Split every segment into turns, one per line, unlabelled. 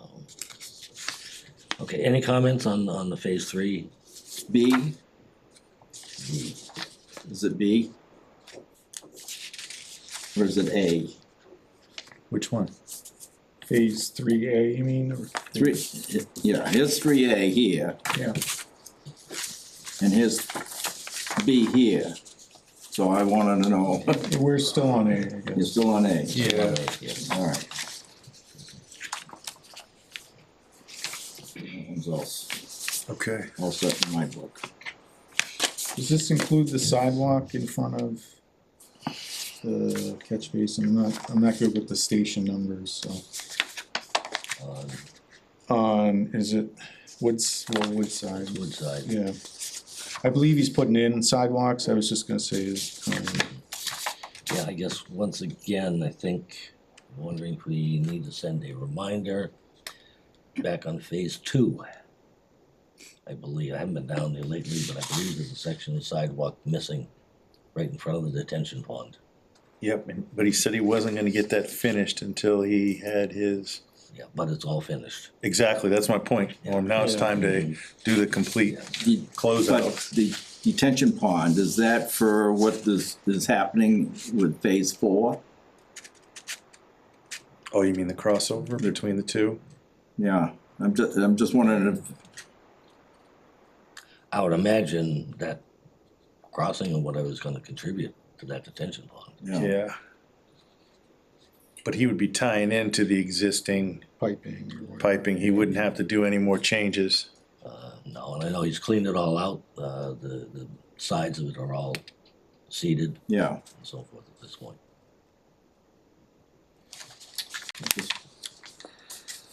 Um, Okay, any comments on, on the phase three?
B? Is it B? Or is it A?
Which one?
Phase three A, you mean, or?
Three, yeah, here's three A here,
Yeah,
and here's B here. So I wanted to know,
we're still on A, I
you're
guess.
still on A?
Yeah.
Alright. That one's all, s-
Okay.
all set in my book.
Does this include the sidewalk in front of the catch basin? I'm not, I'm not good with the station numbers, so.
On
On, Um, is it Woods, well, Woodside?
Woodside,
Yeah. I believe he's putting in sidewalks, I was just gonna say, um,
yeah, I guess, once again, I think, wondering if we need to send a reminder back on phase two. I believe, I haven't been down there lately, but I believe there's a section of sidewalk missing right in front of the detention pond.
Yep, and- but he said he wasn't gonna get that finished until he had his,
Yeah, but it's all finished.
exactly, that's my point. Norm. now it's time to do the complete
The-
closeout.
But the detention pond, is that for what is, is happening with phase four?
Oh, you mean the crossover between the two?
Yeah, I'm just, I'm just wondering if
I would imagine that crossing or whatever is gonna contribute to that detention pond.
Yeah,
Yeah. But he would be tying into the existing
piping or whatever.
piping, he wouldn't have to do any more changes.
Uh, no, and I know he's cleaned it all out, uh, the, the sides of it are all seeded
yeah.
and so forth at this point.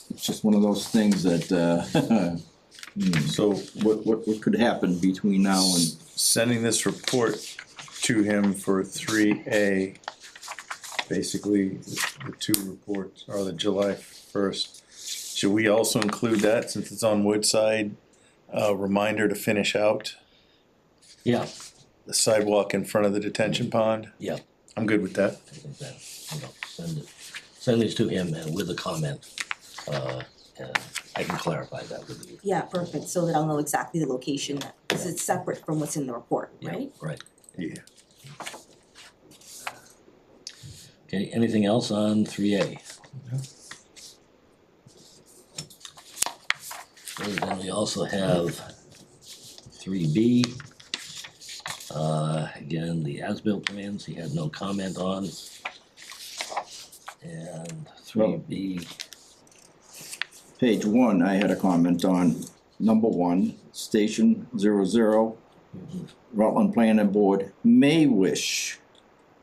It's just one of those things that, uh, hmm,
So
what, what, what could happen between now and,
sending this report to him for three A. Basically, the two reports are the July first. Should we also include that since it's on Woodside? Uh, reminder to finish out
Yeah,
the sidewalk in front of the detention pond?
yeah,
I'm good with that.
I think that, you know, send it, send these to him and with a comment. Uh, and I can clarify that with you.
Yeah, perfect, so that I'll know exactly the location, because it's separate from what's in the report,
Yeah,
right?
Right,
Yeah.
okay, anything else on three A? Then we also have three B. Uh, again, the as-built plans, he had no comment on. And three B,
page one, I had a comment on number one, station zero zero. Rutland Planning Board may wish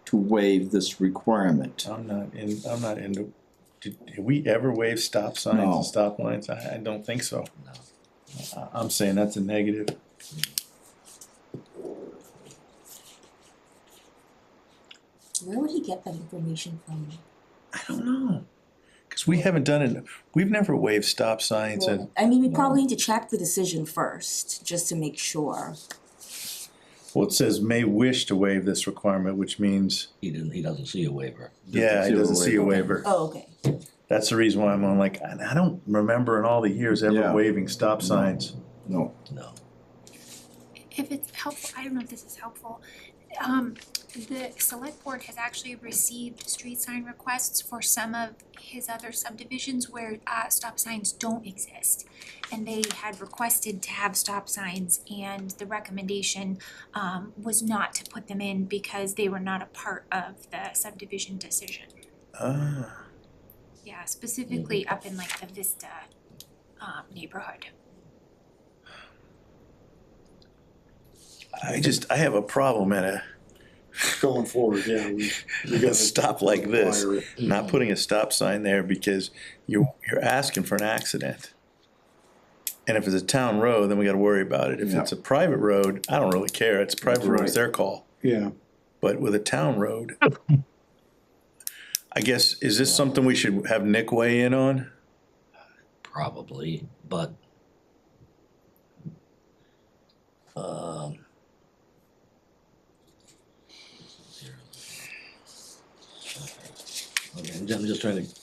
to waive this requirement.
I'm not in, I'm not into, did, did we ever waive stop signs
No.
and stop lines? I, I don't think so.
no,
I, I'm saying that's a negative.
Where would he get that information from?
I don't know. Cause we haven't done it, we've never waived stop signs and
Well, I mean, we probably need to check the decision first, just to make sure.
Well, it says may wish to waive this requirement, which means,
he didn't, he doesn't see a waiver.
yeah, it doesn't see a waiver.
Oh, okay,
That's the reason why I'm on like, I I don't remember in all the years ever
Yeah.
waiving stop signs.
No,
No.
if it's helpful, I don't know if this is helpful. Um, the select board has actually received street sign requests for some of his other subdivisions where uh stop signs don't exist. And they had requested to have stop signs and the recommendation um was not to put them in because they were not a part of the subdivision decision.
Ah,
Yeah, specifically up in like the Vista um neighborhood.
I just, I have a problem at a,
Going forward, yeah, we, we
a
gotta.
stop like this,
require it.
not putting a stop sign there because you're, you're asking for an accident. And if it's a town road, then we gotta worry about it. If
Yeah.
it's a private road, I don't really care. It's private
That's
road, it's
right.
their call.
Yeah,
but with a town road. I guess, is this something we should have Nick weigh in on?
probably, but um Okay, I'm just- I'm just trying to